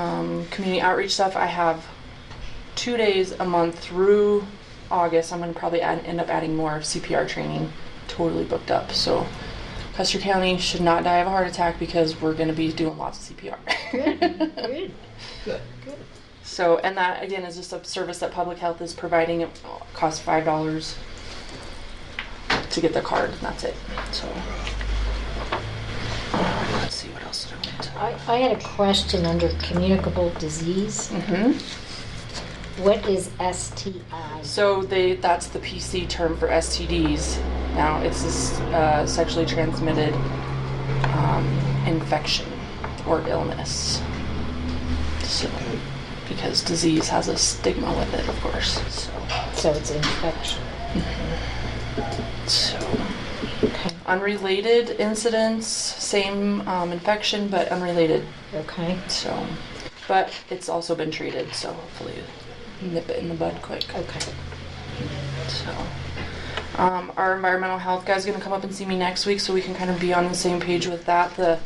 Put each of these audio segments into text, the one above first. um, community outreach stuff. I have two days a month through August. I'm going to probably add, end up adding more CPR training. Totally booked up. So Custer County should not die of a heart attack because we're going to be doing lots of CPR. Good. Good. So, and that again is just a service that public health is providing. It costs five dollars to get the card, and that's it. So, um, let's see what else did I want to. I, I had a question under communicable disease. Mm-hmm. What is STI? So they that's the PC term for STDs. Now it's this uh, sexually transmitted um, infection or illness. So, because disease has a stigma with it, of course. So. So it's infection. So, Okay. unrelated incidents, same um, infection, but unrelated. Okay. So, but it's also been treated, so hopefully nip it in the bud quick. Okay. So, um, our environmental health guy's gonna come up and see me next week, so we can kind of be on the same page with that. The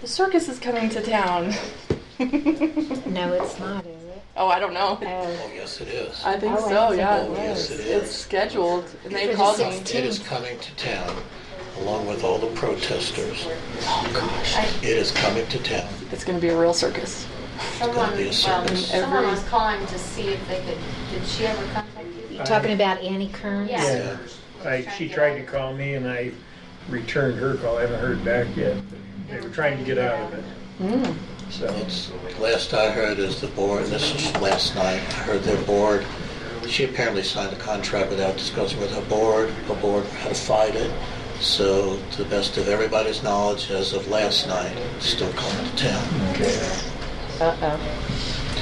the circus is coming to town. No, it's not, is it? oh, I don't know. Oh, Oh, yes, it is. I think Oh, I so. think Yeah, it it was. is. It's scheduled, and they For the called me. 16th. It is coming to town, along with all the protesters. Oh gosh, It is coming to town. it's gonna be a real circus. gonna Someone, be a um, circus. someone Every- was calling to see if they could, did she ever contact you? You're talking about Annie Kearns? Yeah. Yeah. I, she tried to call me and I returned her call. I haven't heard back yet. They were trying to get out of it, Mm. so. It's, last I heard is the board, this was last night, I heard their board, she apparently signed a contract without discussing with her board, her board had fight it. So to the best of everybody's knowledge, as of last night, it's still coming to town. Uh-oh.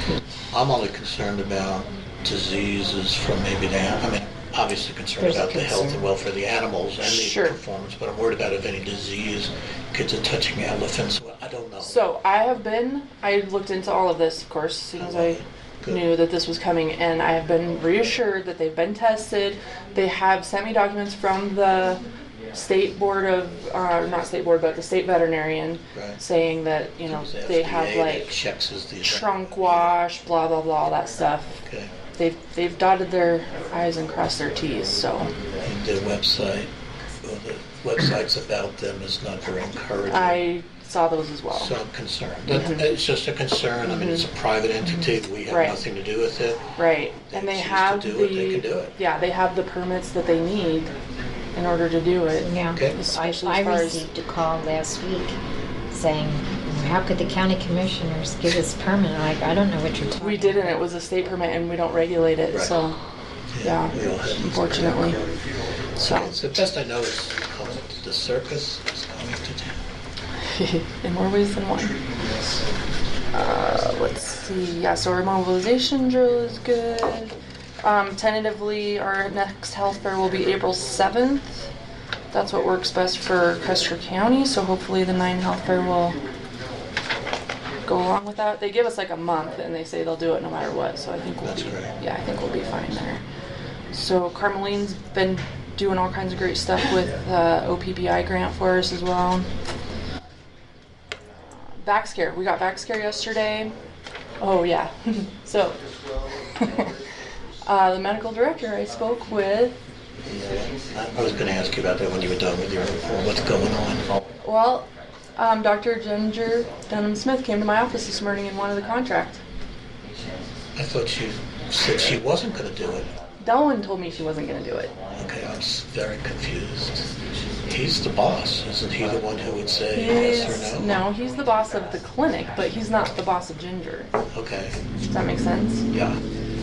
I'm only concerned about diseases from maybe the, I mean, obviously concerned There's a about the health concern. and welfare of the animals and Sure. the performance, but I'm worried about if any disease, kids are touching elephants, well, I don't know. So I have been. I looked into all of this, of course, as soon as I Good. knew that this was coming, and I have been reassured that they've been tested. They have sent me documents from the state board of, uh, not state board, but the state veterinarian, Right. saying that you know It's the they have FDA that like checks is the- trunk wash, blah blah blah, all that stuff. Okay. They've they've dotted their i's and crossed their t's. So And their website, well, the websites about them is not very encouraging. I saw those as well. So I'm concerned. That- It's just a concern. I mean, it's a private entity. We have Mm-hmm. Right. nothing to do with it. Right, They and they choose to have do the it, they can do it. yeah they have the permits that they need in order to do it. Yeah. Okay? I, Especially as far I as- received a call last week saying, how could the county commissioners give us permit? I'm Like, I don't know what you're talking We didn't. It was a state permit, and we don't regulate it. Right. So yeah, we all have- unfortunately. So It's the best I know is called the circus is coming to town. in more ways than one. Uh, let's see. Yeah, so our mobilization drill is good. Um, tentatively, our next health fair will be April seventh. That's what works best for Custer County. So hopefully, the nine health fair will go along with that. They give us like a month, and they say they'll do it no matter what. So I think we'll That's be, great. yeah, I think we'll be fine there. So Carmeline's been doing all kinds of great stuff with uh, OPBI grant for us as well. Back scare. We got back scare yesterday. Oh yeah. so uh, the medical director I spoke with. I- I was going to ask you about that when you were done with your report. What's going on? Well, um, Dr. Ginger Dunham Smith came to my office this morning and wanted the contract. I thought you said she wasn't going to do it. Dolan told me she wasn't going to do it. Okay, I'm s- very confused. He's the boss. Isn't he the one who would say yes He's, or no, he's the boss of the clinic, but he's not the boss of Ginger. Okay, Does that make sense? yeah.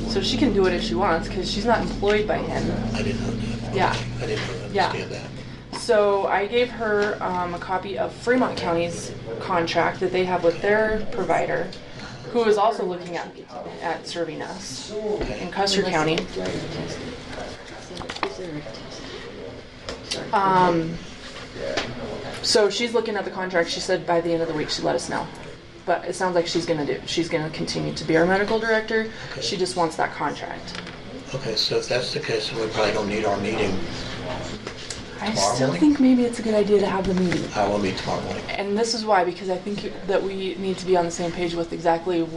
So she can do it if she wants because she's not employed by him. I didn't know that. Yeah. I didn't really Yeah. understand that. So I gave her um, a copy of Fremont County's contract that they have with their provider, who is also looking at at serving us in Custer County. Um, so she's looking at the contract. She said by the end of the week she'd let us know. But it sounds like she's gonna do. She's gonna continue to be our medical director. She just wants that contract. Okay, so if that's the case, then we probably don't need our meeting. I Tomorrow still morning? think maybe it's a good idea to have the meeting. I will meet tomorrow morning. And this is why, because I think that we need to be on the same page with exactly